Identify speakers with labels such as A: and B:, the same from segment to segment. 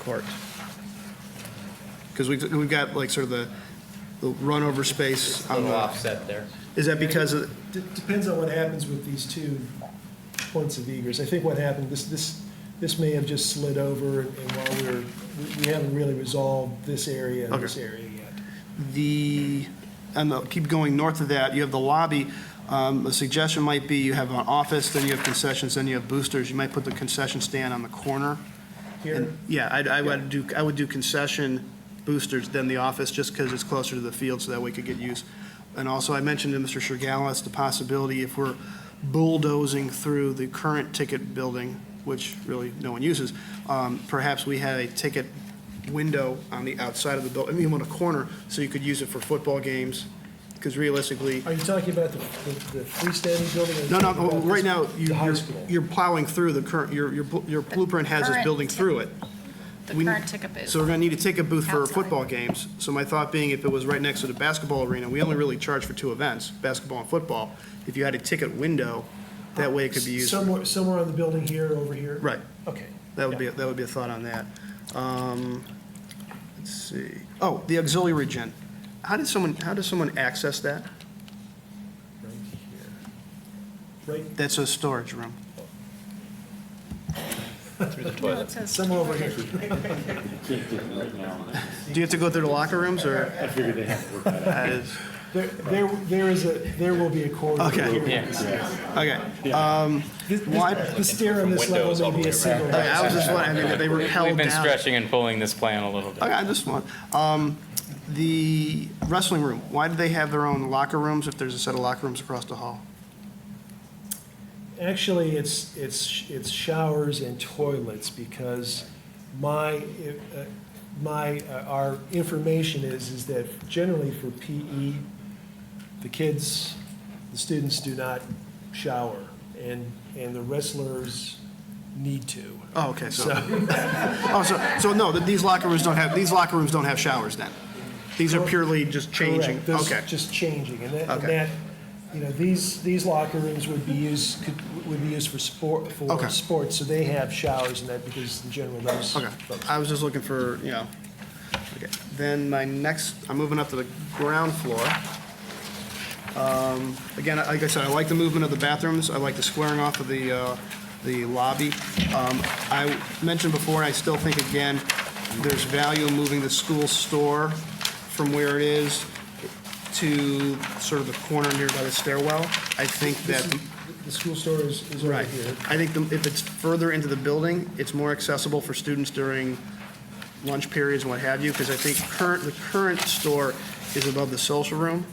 A: court. Because we've, we've got like sort of the, the runover space on
B: Little
A: the,
B: offset there.
A: is that because of,
C: D- Depends on what happens with these two points of egress. I think what happened, this, this, this may have just slid over, and while we're, we- we haven't really resolved this area and this
A: Okay.
C: area yet.
A: the, and the- keep going north of that, you have the lobby. Um, A suggestion might be you have an office, then you have concessions, then you have boosters. You might put the concession stand on the corner.
C: Here,
A: And, Yeah, I'd- I would do, I would do concession boosters than the office, just because it's closer to the field, so that we could get use. And also, I mentioned to Mr. Shergalis the possibility if we're bulldozing through the current ticket building, which really no one uses, um, perhaps we had a ticket window on the outside of the building, I mean, on a corner, so you could use it for football games, because realistically,
C: are you talking about the, the the freestanding building? or are you
A: no, no,
C: talking about
A: right
C: this-
A: now, you-
C: The high
A: you're
C: school?
A: you're plowing through the current, your your bl- your blueprint has this
D: current
A: building
D: ticket
A: through it.
D: The
A: We-
D: current ticket booth.
A: So we're gonna need a ticket booth for
D: Outside.
A: football games. So my thought being, if it was right next to the basketball arena, we only really charge for two events, basketball and football. If you had a ticket window, that way it could be used.
C: Somewhere, somewhere on the building here, over here?
A: Right,
C: Okay.
A: that would be, that would be a thought on that. Um, Let's see, oh, the auxiliary gym. How did someone, how does someone access that?
C: Right here. Right,
A: That's a storage room.
D: No, it says-
C: somewhere over here.
E: Can't do it right now.
A: Do you have to go through the locker rooms, or?
E: I figured they had to work that out.
A: that is-
C: There, there, there is a, there will be a corridor.
A: Okay.
C: here.
A: Okay,
C: This- this-
A: Why-
C: The stair on this
B: Windows
C: level
B: all the
C: may be
B: way
C: a single.
A: Okay, I was just wondering, I mean, they were held down.
F: We've been stretching and pulling this plan a little bit.
A: Okay, I just want, um, the wrestling room, why do they have their own locker rooms if there's a set of locker rooms across the hall?
C: Actually, it's, it's, it's showers and toilets because my, uh, my, uh, our information is, is that generally for PE, the kids, the students do not shower and, and the wrestlers need to.
A: Oh, okay, so,
C: So,
A: oh, so, so no, that these locker rooms don't have, these locker rooms don't have showers then? These are purely just changing,
C: correct, this-
A: okay.
C: Just changing and that, and
A: Okay.
C: that, you know, these, these locker rooms would be used, could, would be used for sport,
A: Okay.
C: for sports. So they have showers and that because in general those
A: Okay,
C: folks.
A: I was just looking for, you know, okay. Then my next, I'm moving up to the ground floor. Um, Again, like I said, I like the movement of the bathrooms, I like the squaring off of the, uh, the lobby. Um, I mentioned before, I still think, again, there's value in moving the school store from where it is to sort of the corner near by the stairwell. I think
C: This
A: that
C: is- The school store is, is over
A: Right.
C: here.
A: I think the- if it's further into the building, it's more accessible for students during lunch periods and what have you, because I think current, the current store is above the social room,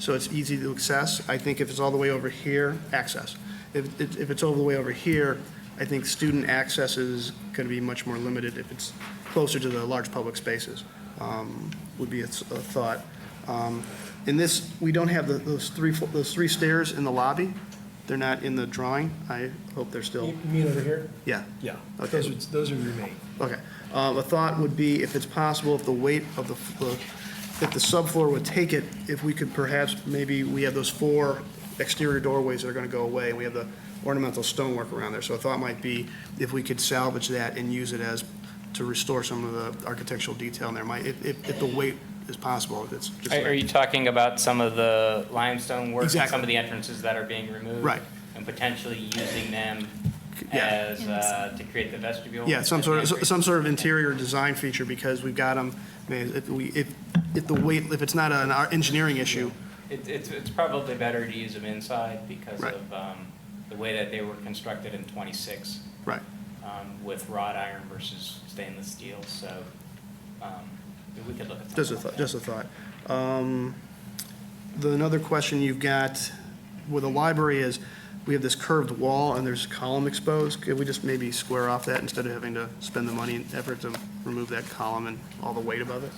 A: so it's easy to access. I think if it's all the way over here, access. If, it- if it's all the way over here, I think student access is going to be much more limited if it's closer to the large public spaces, um, would be a s- a thought. Um, In this, we don't have the- those three, fl- those three stairs in the lobby. They're not in the drawing. I hope they're still,
C: You you mean over here?
A: yeah.
C: Yeah.
A: Okay.
C: Those would, those would remain.
A: Okay. Um, A thought would be, if it's possible, if the weight of the, the- if the subfloor would take it, if we could perhaps, maybe, we have those four exterior doorways that are going to go away, and we have the ornamental stonework around there. So a thought might be, if we could salvage that and use it as, to restore some of the architectural detail in there, might, if, if if the weight is possible, if it's just.
F: Are are you talking about some of the limestone work? and
A: Exactly.
F: Some of the entrances that are being removed?
A: Right.
F: And potentially using them
A: Yeah.
F: as, uh, to create the vestibule?
A: Yeah, some
F: as
A: sort
F: an
A: of,
F: entrance?
A: some sort of interior design feature, because we've got them, if we, if, if the weight, if it's not an ar- engineering issue,
F: It- It's, it's probably better to use them inside because
A: Right.
F: of um, the way that they were constructed in 26
A: right.
F: um, with wrought iron versus stainless steel, so um, we could look at something
A: Just a
F: like
A: thought,
F: that.
A: just a thought. Um, The, another question you've got with the library is, we have this curved wall and there's a column exposed. Could we just maybe square off that instead of having to spend the money and effort to remove that column and all the weight above it?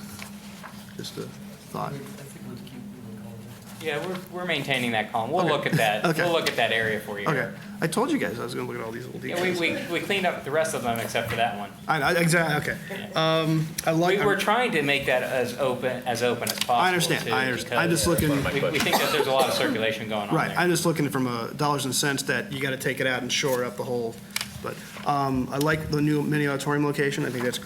A: Just a thought.
F: Yeah, we're, we're maintaining that column. We'll look at that.
A: Okay.
F: We'll look at that area for you.
A: Okay, I told you guys I was gonna look at all these little
F: Yeah, we,
A: details.
F: we, we cleaned up the rest of them except for that one.
A: I, I, exactly, okay. Um, I
F: We
A: like,
F: were trying to make that as open, as open as possible.
A: I understand,
F: too,
A: I understand. I'm just
F: because
A: looking,
F: We, we think that there's a lot of circulation going on
A: right,
F: there.
A: I'm just looking from a dollars and cents that you gotta take it out and shore up the whole, but, um, I like the new mini auditorium location. I think that's